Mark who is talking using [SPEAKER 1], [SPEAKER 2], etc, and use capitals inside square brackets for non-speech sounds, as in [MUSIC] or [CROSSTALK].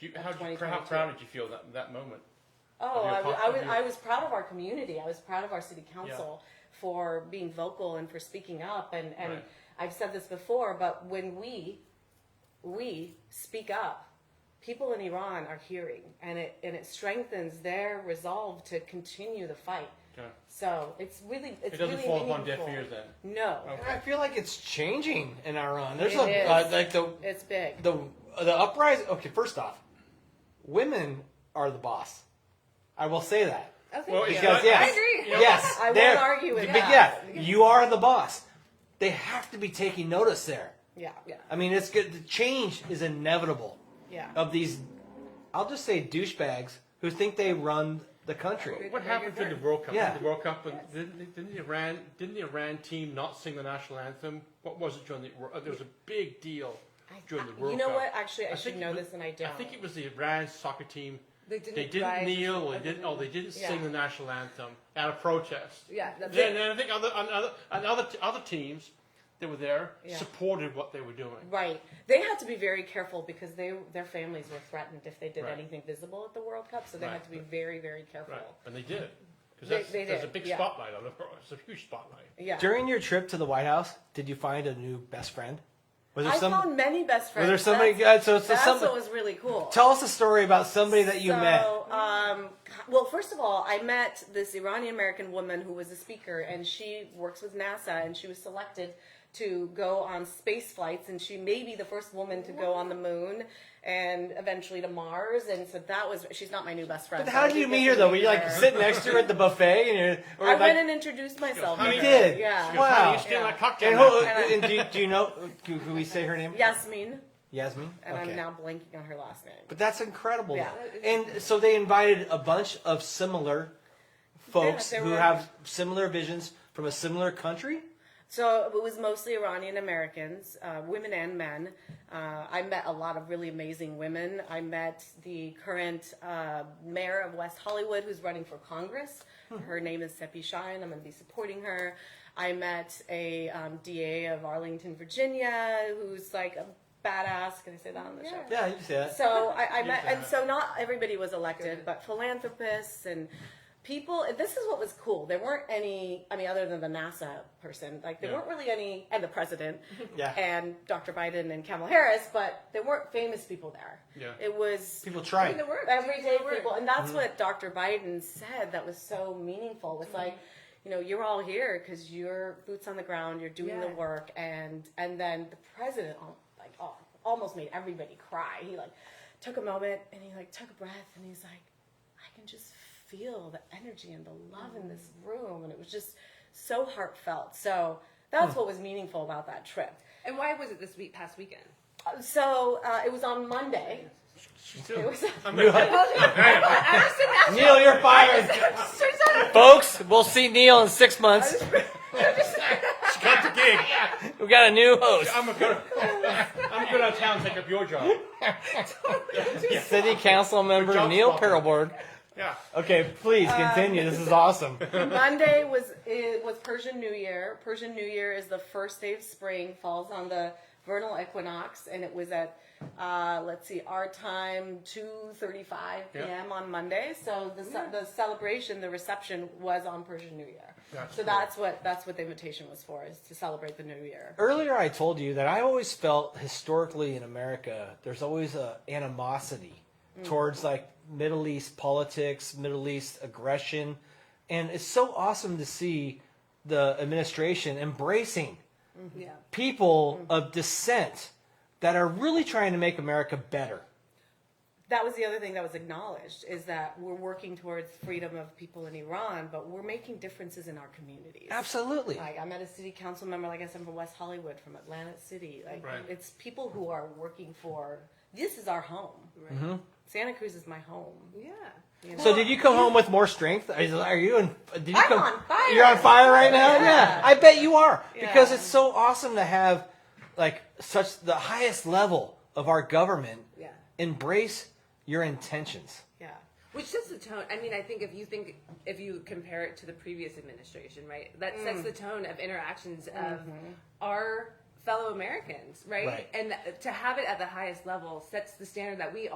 [SPEAKER 1] Do you,
[SPEAKER 2] of
[SPEAKER 1] how, do you, how
[SPEAKER 2] 2022.
[SPEAKER 1] proud did you feel that, that moment?
[SPEAKER 2] Oh,
[SPEAKER 1] Of your
[SPEAKER 2] I, wa-
[SPEAKER 1] con-
[SPEAKER 2] I
[SPEAKER 1] of
[SPEAKER 2] was,
[SPEAKER 1] your-
[SPEAKER 2] I was proud of our community. I was proud of our city council for being vocal and for speaking up. And, and
[SPEAKER 1] Right.
[SPEAKER 2] I've said this before, but when we, we speak up, people in Iran are hearing and it, and it strengthens their resolve to continue the fight.
[SPEAKER 1] Okay.
[SPEAKER 2] So it's really, it's
[SPEAKER 1] It doesn't
[SPEAKER 2] really
[SPEAKER 1] fall upon deaf
[SPEAKER 2] meaningful.
[SPEAKER 1] ears then.
[SPEAKER 2] No,
[SPEAKER 1] Okay.
[SPEAKER 3] I feel like it's changing in Iran. There's
[SPEAKER 2] It
[SPEAKER 3] a
[SPEAKER 2] is.
[SPEAKER 3] Uh, like the
[SPEAKER 2] it's big.
[SPEAKER 3] the the uprising. Okay, first off, women are the boss. I will say that.
[SPEAKER 2] Oh, thank
[SPEAKER 1] Well,
[SPEAKER 2] you.
[SPEAKER 1] it's
[SPEAKER 3] Because
[SPEAKER 1] not-
[SPEAKER 3] yes,
[SPEAKER 4] I agree.
[SPEAKER 3] yes,
[SPEAKER 2] I won't
[SPEAKER 3] they're-
[SPEAKER 2] argue with
[SPEAKER 3] but
[SPEAKER 2] that.
[SPEAKER 3] yeah, you are the boss. They have to be taking notice there.
[SPEAKER 2] yeah, yeah,
[SPEAKER 3] I mean, it's good. The change is inevitable
[SPEAKER 2] yeah.
[SPEAKER 3] of these. I'll just say douchebags who think they run the country.
[SPEAKER 1] What happened to the World Cup?
[SPEAKER 3] Yeah.
[SPEAKER 1] The World Cup, but didn't, didn't the Iran didn't the Iran team not sing the national anthem? What was it during the? Wor- There was a big deal
[SPEAKER 2] I-
[SPEAKER 1] during the
[SPEAKER 2] I-
[SPEAKER 1] World
[SPEAKER 2] you know
[SPEAKER 1] Cup.
[SPEAKER 2] what? Actually, I
[SPEAKER 1] think
[SPEAKER 2] should
[SPEAKER 1] it
[SPEAKER 2] know
[SPEAKER 1] was-
[SPEAKER 2] this and I
[SPEAKER 1] I think
[SPEAKER 2] don't.
[SPEAKER 1] it was the Iran soccer team.
[SPEAKER 4] They didn't.
[SPEAKER 1] They didn't
[SPEAKER 4] rise-
[SPEAKER 1] kneel. Or they didn't. Oh, they didn't
[SPEAKER 2] Yeah.
[SPEAKER 1] sing the national anthem out of protest.
[SPEAKER 4] Yeah, that's
[SPEAKER 1] Yeah,
[SPEAKER 4] it.
[SPEAKER 1] and then I think other and other and other, other teams that were there
[SPEAKER 2] Yeah.
[SPEAKER 1] supported what they were doing.
[SPEAKER 2] Right. They had to be very careful because they their families were threatened if they did
[SPEAKER 1] Right.
[SPEAKER 2] anything visible at the World Cup, so they
[SPEAKER 1] Right.
[SPEAKER 2] had to be very, very careful.
[SPEAKER 1] Right, and they did
[SPEAKER 2] They-
[SPEAKER 1] because that's
[SPEAKER 2] they
[SPEAKER 1] there's
[SPEAKER 2] did,
[SPEAKER 1] a big
[SPEAKER 2] yeah.
[SPEAKER 1] spotlight on it. It's a huge spotlight.
[SPEAKER 2] Yeah.
[SPEAKER 3] During your trip to the White House, did you find a new best friend? Was there
[SPEAKER 2] I
[SPEAKER 3] some?
[SPEAKER 2] found many best friends.
[SPEAKER 3] was there somebody?
[SPEAKER 2] That's,
[SPEAKER 3] good? So, so
[SPEAKER 2] that's
[SPEAKER 3] some,
[SPEAKER 2] what was really cool.
[SPEAKER 3] tell us a story about somebody that you
[SPEAKER 2] so,
[SPEAKER 3] met.
[SPEAKER 2] Um, well, first of all, I met this Iranian American woman who was a speaker, and she works with NASA, and she was selected to go on space flights, and she may be the first woman to go on the moon and eventually to Mars. And so that was. She's not my new best friend.
[SPEAKER 3] But
[SPEAKER 2] so
[SPEAKER 3] how
[SPEAKER 2] I
[SPEAKER 3] did you
[SPEAKER 2] do
[SPEAKER 3] meet
[SPEAKER 2] get
[SPEAKER 3] her
[SPEAKER 2] to
[SPEAKER 3] though? Were you like
[SPEAKER 2] [LAUGHS] her.
[SPEAKER 3] sitting next to her at the buffet and you're? Or
[SPEAKER 2] I
[SPEAKER 3] like,
[SPEAKER 2] went and introduced myself.
[SPEAKER 1] You
[SPEAKER 2] to her.
[SPEAKER 3] did?
[SPEAKER 2] Yeah.
[SPEAKER 3] Wow.
[SPEAKER 1] Honey, you stealing
[SPEAKER 2] Yeah.
[SPEAKER 1] that cocktail.
[SPEAKER 3] and, who,
[SPEAKER 1] napkin.
[SPEAKER 3] and do, do you know? Can, can we say her name?
[SPEAKER 2] Yasmin,
[SPEAKER 3] Yasmin.
[SPEAKER 2] and
[SPEAKER 3] okay.
[SPEAKER 2] I'm now blanking on her last name.
[SPEAKER 3] But that's incredible.
[SPEAKER 2] Yeah.
[SPEAKER 3] And so they invited a bunch of similar folks
[SPEAKER 2] there
[SPEAKER 3] who
[SPEAKER 2] were-
[SPEAKER 3] have similar visions from a similar country.
[SPEAKER 2] So it was mostly Iranian Americans, uh, women and men. Uh, I met a lot of really amazing women. I met the current uh, mayor of West Hollywood who's running for Congress.
[SPEAKER 3] Hmm.
[SPEAKER 2] Her name is Seppi Shine. I'm going to be supporting her. I met a um, DA of Arlington, Virginia, who's like a badass. Can I say that on the show?
[SPEAKER 4] Yeah.
[SPEAKER 3] Yeah, you can say that.
[SPEAKER 2] So I, I
[SPEAKER 1] You
[SPEAKER 2] met,
[SPEAKER 1] can.
[SPEAKER 2] and so not everybody was elected, but philanthropists and people. and This is what was cool. There weren't any. I mean, other than the NASA person, like there
[SPEAKER 1] Yeah.
[SPEAKER 2] weren't really any, and the president,
[SPEAKER 3] Yeah.
[SPEAKER 2] and Dr. Biden and Kamala Harris, but there weren't famous people there.
[SPEAKER 1] Yeah.
[SPEAKER 2] it was
[SPEAKER 3] People
[SPEAKER 4] I
[SPEAKER 3] try.
[SPEAKER 4] mean, the [LAUGHS] work.
[SPEAKER 2] everyday
[SPEAKER 4] The work.
[SPEAKER 2] people, and that's what Dr. Biden said. That was so meaningful. Was like. You know, you're all here because you're boots on the ground. You're doing the
[SPEAKER 4] Yeah.
[SPEAKER 2] work, and and then the president, al- like, al- almost made everybody cry. He like took a moment and he like took a breath and he's like, I can just feel the energy and the love in this room, and it was just so heartfelt. So that's what was meaningful about that trip.
[SPEAKER 4] And why was it this week, past weekend?
[SPEAKER 2] Uh, So uh, it was on Monday.
[SPEAKER 1] Still-
[SPEAKER 2] It was
[SPEAKER 1] I'm gonna-
[SPEAKER 4] [LAUGHS]
[SPEAKER 3] Neil, you're fired. [LAUGHS] Folks, we'll see Neil in six months.
[SPEAKER 1] Cut the gig.
[SPEAKER 3] We got a new host.
[SPEAKER 1] I'm gonna, I'm gonna go town and take up your job.
[SPEAKER 3] City Council member
[SPEAKER 1] Job
[SPEAKER 3] Neil
[SPEAKER 1] swapping.
[SPEAKER 3] Perelborn.
[SPEAKER 1] Yeah.
[SPEAKER 3] Okay, please continue. this is awesome.
[SPEAKER 2] Monday was it was Persian New Year. Persian New Year is the first day of spring, falls on the vernal equinox, and it was at uh, let's see, our time two thirty five p.m. on Monday. So the ce- the celebration, the reception was on Persian New Year.
[SPEAKER 1] That's
[SPEAKER 2] so
[SPEAKER 1] cool.
[SPEAKER 2] that's what that's what the invitation was for is to celebrate the New Year.
[SPEAKER 3] [LAUGHS] Earlier, I told you that I always felt historically in America, there's always a animosity towards like Middle East politics, Middle East aggression, and it's so awesome to see the administration embracing
[SPEAKER 4] Yeah.
[SPEAKER 3] people of dissent that are really trying to make America better.
[SPEAKER 2] that was the other thing that was acknowledged is that we're working towards freedom of people in Iran, but we're making differences in our communities.
[SPEAKER 3] Absolutely.
[SPEAKER 2] Like I met a city council member, like I said, from West Hollywood, from Atlantic City. Like
[SPEAKER 1] Right.
[SPEAKER 2] it's people who are working for this is our home.
[SPEAKER 4] Right.
[SPEAKER 2] Santa Cruz is my home.
[SPEAKER 4] Yeah.
[SPEAKER 3] So did you come home with more strength? Are you, are you in, did you
[SPEAKER 2] I'm
[SPEAKER 3] come,
[SPEAKER 2] on fire.
[SPEAKER 3] You're on fire right now. Yeah,
[SPEAKER 2] Yeah.
[SPEAKER 3] I bet you are because
[SPEAKER 2] Yeah.
[SPEAKER 3] it's so awesome to have like such the highest level of our government
[SPEAKER 4] Yeah.
[SPEAKER 3] embrace your intentions.
[SPEAKER 2] Yeah.
[SPEAKER 4] Which sets the tone. I mean, I think if you think if you compare it to the previous administration, right, that sets the tone of interactions of our fellow Americans, right?
[SPEAKER 3] Right.
[SPEAKER 4] And to have it at the highest level sets the standard that we all.